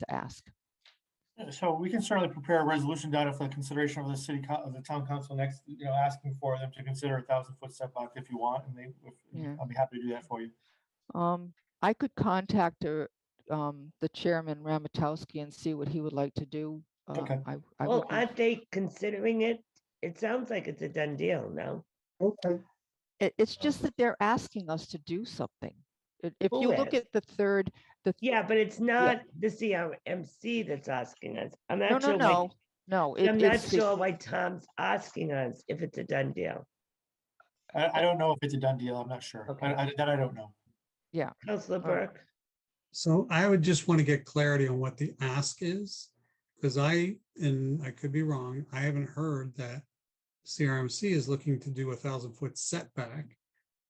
to ask. So we can certainly prepare a resolution data for the consideration of the city, co- of the town council next, you know, asking for them to consider a thousand foot setback if you want, and they, Yeah. if- I'll be happy to do that for you. Um, I could contact uh, um, the chairman Ramatowski and see what he would like to do. Uh, Okay. I, I Well, would, be- aren't they considering it? It sounds like it's a done deal, no? Okay. it, it's Oh. just that they're asking us to do something. If if Who you look is? at the third, the. Yeah, but it's not the CRMC that's asking us. I'm No, not no, sure. why- no, no. it- I'm not it's the- sure why Tom's asking us if it's a done deal. I, I don't know if it's a done deal. I'm not sure. Okay. I, I, that I don't know. Counselor right. Burke, So I would just want to get clarity on what the ask is, because I, and I could be wrong, I haven't heard that CRMC is looking to do a thousand foot setback.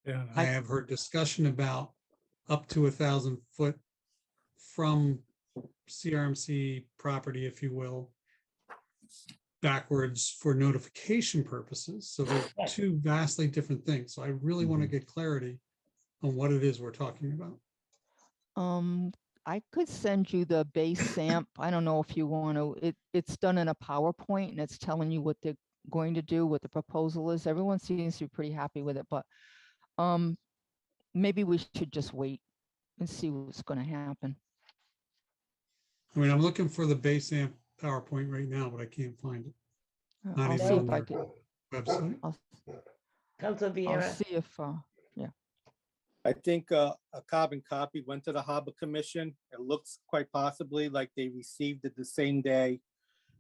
Yeah. I have heard discussion about up to a thousand foot from CRMC property, if you will, backwards for notification purposes. So they're Right. two vastly different things. So I really want to get clarity on what it is we're talking about. Um, I could send you the base samp. I don't know if you want to, it, it's done in a PowerPoint and it's telling you what they're going to do, what the proposal is. Everyone seems to be pretty happy with it, but um, maybe we should just wait and see what's going to happen. I mean, I'm looking for the base amp PowerPoint right now, but I can't find it. Uh, Not I'll even see on if I their could, Website. I'll, Counselor I'll Vieira, see if, uh, I think uh, a carbon copy went to the Harbor Commission. It looks quite possibly like they received it the same day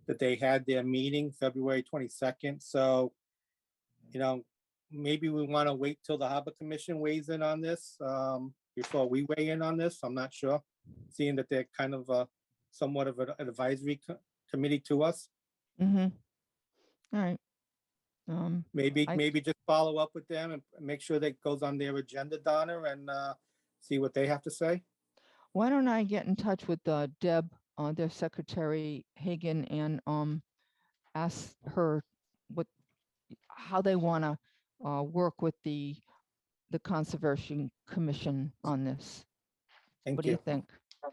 that they had their meeting, February 22nd. So, you know, maybe we want to wait till the Harbor Commission weighs in on this um, before we weigh in on this. I'm not sure, seeing that they're kind of uh, somewhat of an advisory co- committee to us. mhm. All right. Um, Maybe, I- maybe just follow up with them and make sure that goes on their agenda, Donna, and uh, see what they have to say. why don't I get in touch with uh, Deb, uh, their secretary Hagan, and um, ask her what, how they want to uh, work with the, the Conservation Commission on this. What Thank do you. you think? I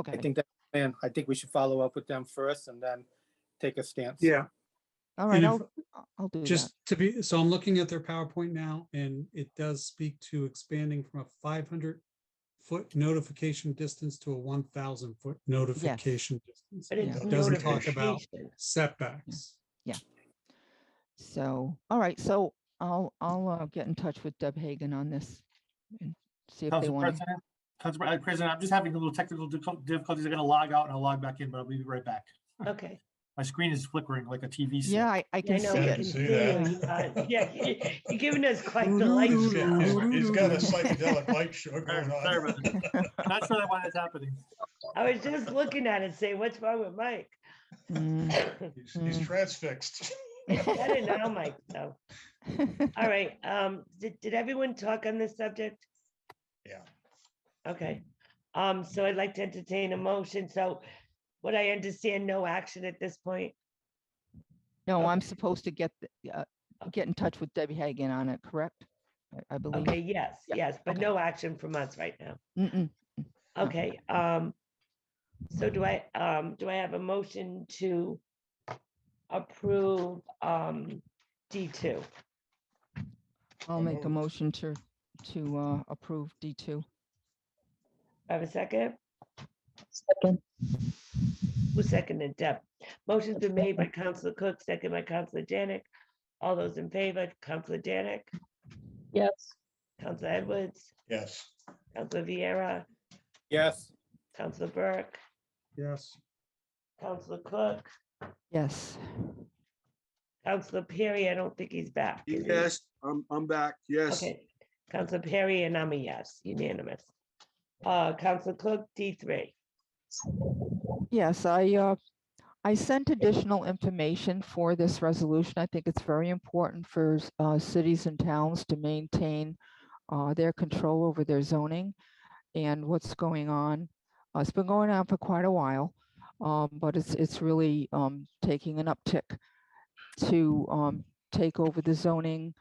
Okay, think that, and I think we should follow up with them first and then take a stance. Yeah, all right, And if- I'll, I'll do that. Just to be, so I'm looking at their PowerPoint now and it does speak to expanding from a five hundred foot notification distance to a one thousand foot notification distance. but it's It doesn't talk about notification. setbacks. So, all right, so I'll, I'll uh, get in touch with Deb Hagan on this and see if they Council want to. President, Council Pre- uh, President, I'm just having a little technical difficul- difficulties. I'm gonna log out and I'll log back in, but I'll be right back. Okay. My screen is flickering like a TV. set. Yeah, I, I Yeah, I can see know, we it. can see see that. you, uh, Yeah, you- you're giving us quite the light It's he's got- show. he's- he's got a psychedelic light show Sorry going sorry on. about that. Not sure that one is happening. I was just looking at it, saying, what's wrong with Mike? Mm. He's he's transfixed. Better now, Mike, though. All right, um, did, did everyone talk on this subject? Yeah. Okay, um, so I'd like to entertain a motion, so what I understand, no action at this point? No, I'm Okay. supposed to get, the- uh, get in touch with Debbie Hagan on it, correct? I- I believe. Okay, yes, Mm-hmm. Yeah, yes, but okay. Mm-hmm. no action from us right now. Mm-mm. Okay, um, so do I, um, do I have a motion to approve, um, D two? I'll make a motion to, to uh, approve D2. Have a second? Who seconded Deb? Motion's been made by Counselor Cook, second by Counselor Janik. All those in favor, Counselor Janik, Yes. Counselor Edwards, Yes. Counselor Vieira, Yes, Counselor Burke, Yes. Counselor Cook, Yes. Counselor Perry, I don't think he's back. is he? Yes, I'm, I'm back. Yes. Okay, Counselor Perry and I'm a yes, unanimous. Uh, Counselor Cook, D three. Yes, I, uh, I sent additional information for this resolution. I think it's very important for s- uh, cities and towns to maintain uh, their control over their zoning and what's going on. Uh, It's been going on for quite a while, um, but it's, it's really um, taking an uptick to um, take over the zoning.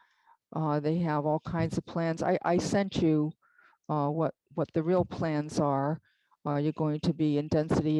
Uh, They have all kinds of plans. I, I sent you uh, what, what the real plans are. Uh, You're going to be in density